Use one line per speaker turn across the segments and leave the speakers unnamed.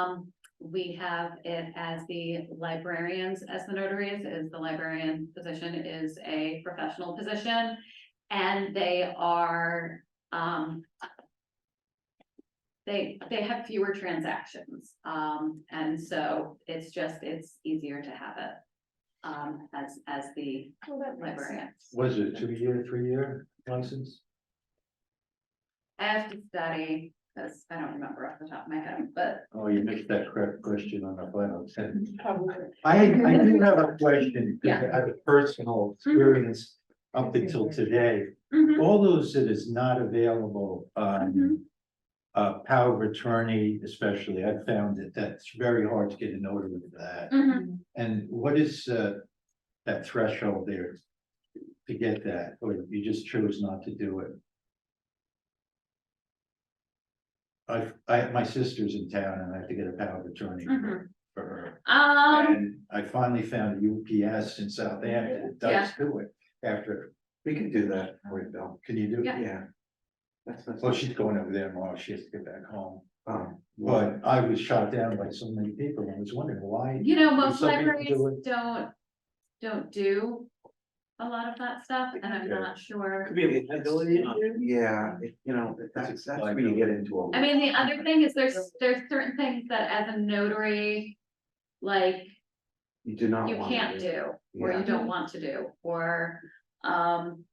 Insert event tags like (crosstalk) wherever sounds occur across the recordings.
Um, we have it as the librarians, as the notaries, is the librarian position is a professional position. And they are, um. They, they have fewer transactions, um, and so it's just, it's easier to have it. Um, as, as the
Well, that makes sense.
librarian.
Was it two year, three year license?
I have to study, because I don't remember off the top of my head, but
Oh, you missed that correct question on the final sentence.
Probably.
I, I do have a question, because I have a personal experience up
Mhm.
until today.
mm-hmm,
All those that is not available on uh, power of attorney especially, I've found that that's very hard to get a notary for that.
mm-hmm.
And what is uh, that threshold there to get that, or you just chose not to do it? I, I, my sister's in town and I have to get a power of attorney for
Mhm.
her.
um,
And I finally found UPS in Southampton, that does do it after,
We can do that for you, Bill.
can you do?
Yeah.
it?
Yeah. That's, that's.
Well, she's going over there tomorrow, she has to get back home,
Um,
but I was shot down by so many people and was wondering why.
You know, most
some people
libraries
do it.
don't, don't do a lot of that stuff, and I'm
Yeah.
not sure.
Could be a liability.
Yeah, it- you know, that's, that's where you get into a.
I mean, the other thing is there's, there's certain things that as a notary, like,
You do not
you
want.
can't do, or
Yeah.
you don't want to do, or, um,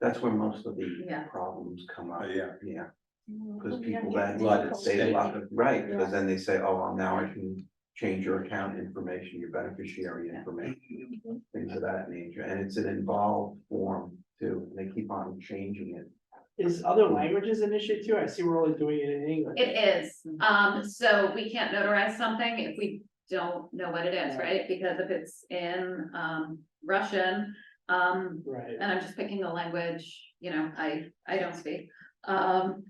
That's where most of
Yeah.
the problems come up.
Oh, yeah.
Yeah,
Well,
because
we
people
have
then
A lot of
say, a
state.
lot of- right,
Yeah.
because then they say, oh, well, now I can change your account information, your beneficiary information.
Mm-hmm.
Things of that nature, and it's an involved form too, and they keep on changing it.
Is other languages an issue too? I see we're only doing it in English.
it is. Um, so we can't notarize something if we don't know what it is, right? Because if it's in, um, Russian, um,
Right,
and I'm just picking a language, you know, I, I don't speak, um.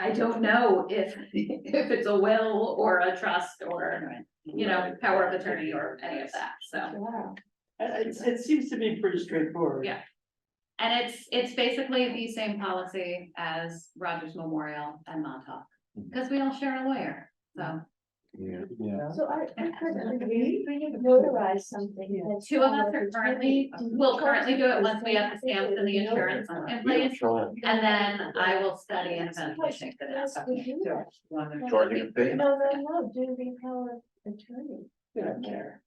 I don't know if, if it's a will or a trust or, you know, power of attorney or any of that, so.
Wow.
it, it, it seems to be pretty straightforward.
Yeah. And it's, it's basically the same policy as Rogers Memorial and Montauk, because we all share a lawyer, so.
Yeah.
Yeah.
So I, I could, I mean, we notarize something. that's
Two of
on
us
the
are currently,
attorney-
will currently do it once we have the stamps and the insurance in
We don't
place,
show it.
and then I will study and eventually take the
Yes,
next.
we do that.
Charging a fee.
No, no, no, do the power of attorney.
They don't care.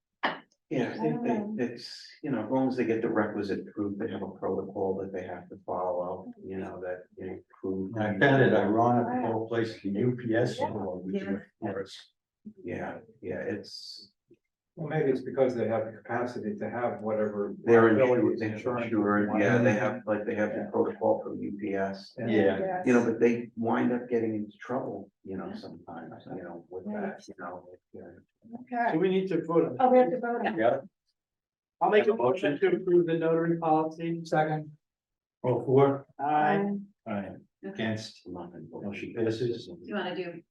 Yeah, I think
Um,
they, it's, you know, as long as they get the requisite proof, they have a protocol that they have to follow, you know, that, you know, prove.
I found it ironic, the whole place, the UPS. law was doing it for us.
Yeah, yeah, it's,
Well, maybe it's because they have the capacity to have whatever.
they're
liability
insured, they're
insurance
insured,
they want.
yeah, they have, like, they have the
Yeah.
protocol from UPS.
Yeah.
You know, but they wind up getting into trouble, you know, sometimes, you know, with that, you know. like, uh,
So
Okay.
we need to vote on.
Oh, we have
that.
to vote on. it.
Yeah,
I'll make a
Have a motion?
motion to approve the notary policy.
Second,
all four,
I,
Um,
aye, against,
I'm not gonna vote.
motion (laughs)
(laughs)
passes.
Do you wanna do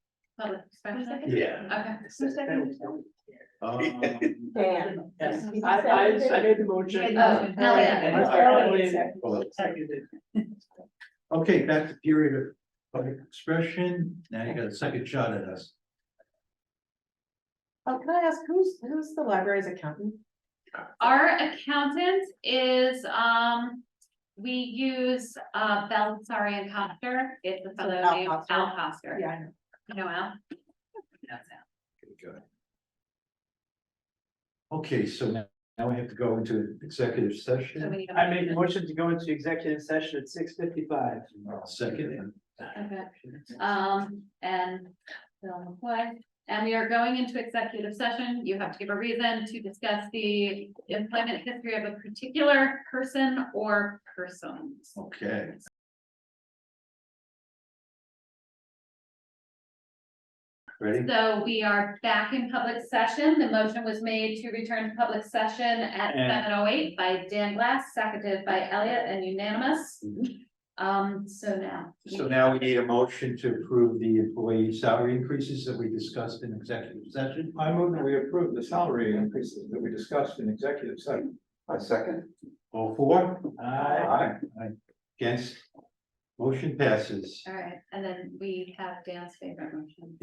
public expression?
Yeah.
Okay,
Who seconded that?
Um,
Dan.
yes, I, I, I made the motion.
Oh, Elliot.
I'm sorry, Elliot
Second.
well,
Seconded.
Okay, back to period of public expression, now you got a second shot at us.
Oh, can I ask, who's, who's the library's accountant?
our accountant is, um, we use, uh, Sorry and Coster, it's a fellow
Al
named
Coster?
Al Coster.
Yeah, I know.
You know Al? He knows Al.
Good. Okay, so now, now we have to go into executive
So we
session,
need a
I made the motion to go into executive session at six fifty-five.
second, and
Okay, um, and Bill McCoy, and we are going into executive session. You have to give a reason to discuss the employment history of a particular person or persons.
okay. Ready?
So we are back in public session. The motion was made to return to public session at
And-
seven oh eight by Dan Glass, seconded by Elliot and unanimous. Um, so now.
Mm-hmm. So now we need a motion to approve the employee salary increases that we discussed in executive session.
I move that we approve the salary increases that we discussed in executive session.
A second.
All four?
Aye.
Aye. Against? Motion passes.
All right, and then we have Dan's favorite motion.